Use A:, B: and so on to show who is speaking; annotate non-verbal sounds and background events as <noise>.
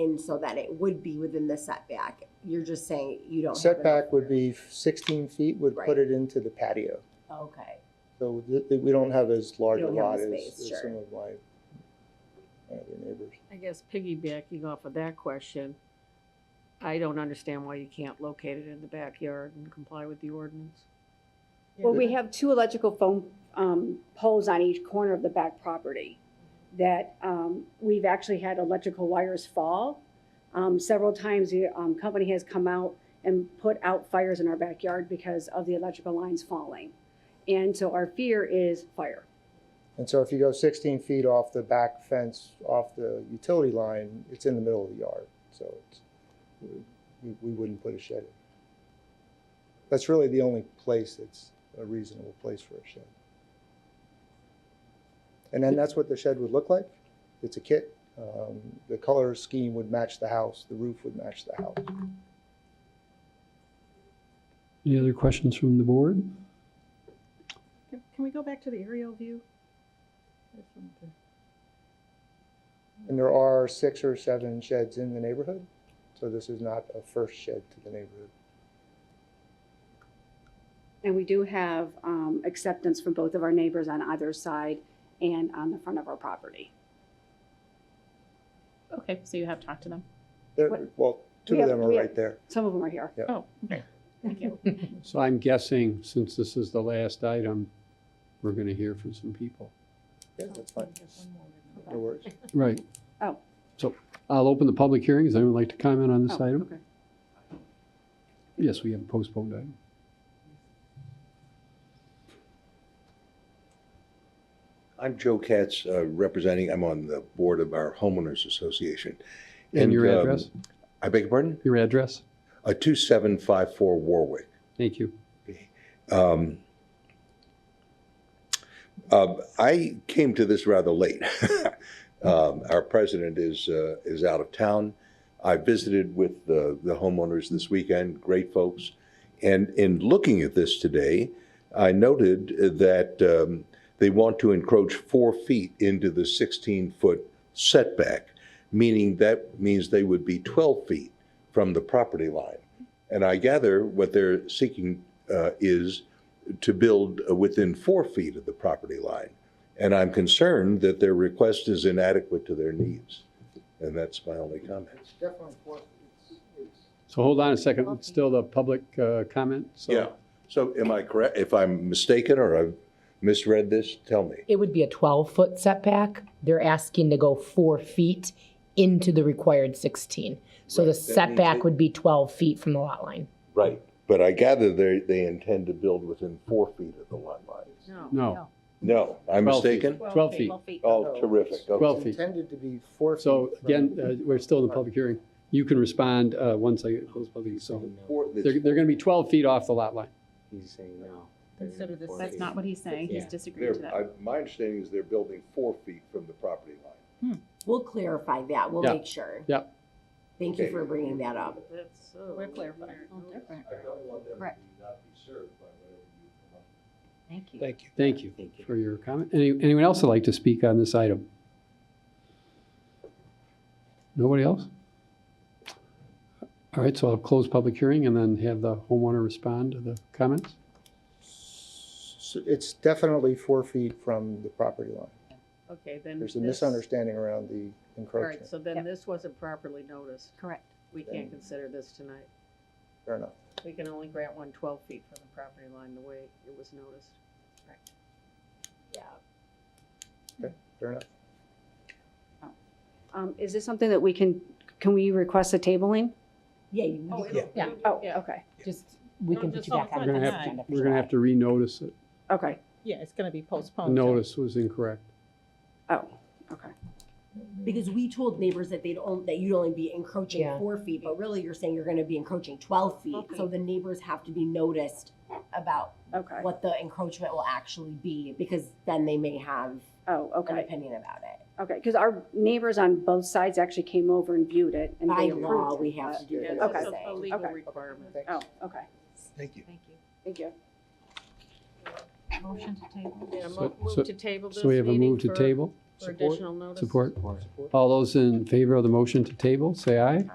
A: in so that it would be within the setback. You're just saying you don't. have enough-
B: Setback would be sixteen feet would put
A: Right.
B: it into the patio.
A: Okay,
B: So th- th- we don't have as large
A: You
B: a
A: don't have
B: lot
A: the
B: as
A: space,
B: as
A: sure.
B: some of my my other neighbors.
C: I guess piggybacking off of that question, I don't understand why you can't locate it in the backyard and comply with the ordinance.
D: Well, we have two electrical phone um, poles on each corner of the back property that um, we've actually had electrical wires fall. Um, Several times, the um, company has come out and put out fires in our backyard because of the electrical lines falling. And so our fear is fire.
B: And so if you go sixteen feet off the back fence, off the utility line, it's in the middle of the yard, so it's, we, we wouldn't put a shed in. That's really the only place that's a reasonable place for a shed. And then that's what the shed would look like. It's a kit. Um, the color scheme would match the house, the roof would match the house.
E: Any other questions from the board?
F: Can can we go back to the aerial view? There's some to-
B: And there are six or seven sheds in the neighborhood, so this is not a first shed to the neighborhood.
D: And we do have um, acceptance from both of our neighbors on either side and on the front of our property.
G: Okay, so you have talked to them.
B: There,
D: What-
B: well, two
D: We
B: of
D: have-
B: them are
D: we have-
B: right there.
D: Some of them are here.
G: Oh, okay. Thank you.
E: So I'm guessing, since this is the last item, we're going to hear from some people.
B: Yeah, that's fine. No worries.
E: Right.
D: Oh.
E: So I'll open the public hearing. Does anyone like to comment on this
D: Oh,
E: item?
D: okay.
E: Yes, we have a postponed item.
H: I'm Joe Katz, uh, representing, I'm on the board of our homeowners association.
E: And your
H: um,
E: address?
H: I beg your pardon?
E: Your address?
H: Uh, 2754 Warwick.
E: Thank you.
H: Um, uh, I came to this rather late. <laughs> um, our president is uh, is out of town. I visited with the, the homeowners this weekend, great folks. And in looking at this today, I noted that um, they want to encroach four feet into the 16 foot setback, meaning that means they would be 12 feet from the property line. And I gather what they're seeking uh, is to build uh, within four feet of the property line. And I'm concerned that their request is inadequate to their needs. And that's my only comment.
B: Definitely,
E: So hold on a second. It's still the public uh, comment. So
H: Yeah. So am I correct? If I'm mistaken or I've misread this, tell me.
I: It would be a 12-foot setback. They're asking to go four feet into the required 16. So
H: Right, that
I: the
H: means it-
I: setback would be 12 feet from the lot line.
H: Right. But I gather they, they intend to build within four feet of the lot line.
C: Oh,
E: No,
H: No, I'm
E: 12 feet.
H: mistaken?
E: 12 feet.
H: Oh, terrific. Okay.
E: Twelve feet.
B: Intended to be four feet.
E: So
B: from-
E: again, uh, we're still in the public hearing. You can respond uh, once I close public. So
H: Four- it's-
E: they're, they're going to be 12 feet off the lot line.
J: He's saying no.
F: Consider this-
G: That's not what he's saying. He's
J: Yeah.
G: disagreeing
H: they're-
G: to that.
H: I- My understanding is they're building four feet from the property line.
A: we'll clarify that. We'll
E: Yeah.
A: make sure.
E: Yeah.
A: Thank you
H: Okay.
A: for bringing that up.
F: We're clarifying.
D: Oh,
G: Oh,
H: I don't want them
G: Correct.
H: not be served by whatever you come up
G: Thank you.
B: Thank you.
E: Thank you
J: Thank you.
E: for your comment. Any, anyone else would like to speak on this item? Nobody else? All right, so I'll close public hearing and then have the homeowner respond to the comments.
B: S- It's definitely four feet from the property line.
C: Okay, then.
B: There's a
C: this-
B: misunderstanding around the
C: All right,
B: encroachment.
C: so then
G: Yep.
C: this wasn't properly noticed.
G: Correct.
C: We can't consider this tonight.
B: Fair enough.
C: We can only grant one 12 feet from the property line the way it was noticed.
B: Fair enough.
D: Um, Is this something that we can, can we request a tabling?
A: Yeah, you
F: Oh,
A: you-
F: it'll-
I: Yeah.
F: it'll-
D: Oh, okay,
I: Just, we
F: No,
I: can put
F: just
I: you back
F: all
E: We're
F: front
I: on. the
E: gonna
I: next
F: and
E: have, to-
I: agenda for
E: we're gonna
I: July.
E: have to renotice it.
D: okay,
F: Yeah, it's gonna be
C: Oh,
F: postponed. till-
E: Notice was incorrect.
D: oh, okay.
A: because we told neighbors that they'd only, that you'd only be encroaching
I: Yeah.
A: four feet, but really you're saying you're going to be encroaching 12 feet. So the neighbors have to be noticed about
D: Okay.
A: what the encroachment will actually be because then they may have
D: Oh,
A: an
D: okay,
A: opinion about it.
D: okay. Because our neighbors on both sides actually came over and viewed it and
A: By
D: they
A: law,
D: approved.
A: we have to do
C: Yeah,
A: this.
C: it's
D: Okay.
C: just a- a legal
D: Okay.
C: requirement.
D: Oh, okay.
H: Thank you.
D: Thank you.
G: Motion to table.
C: Yeah,
E: So-
C: mo- move
E: so-
C: to table this
E: So we have a
C: meeting
E: move to
C: for
E: table.
C: for
B: Support.
C: additional notice?
E: Support?
B: Support.
E: All those in favor of the motion to table, say aye.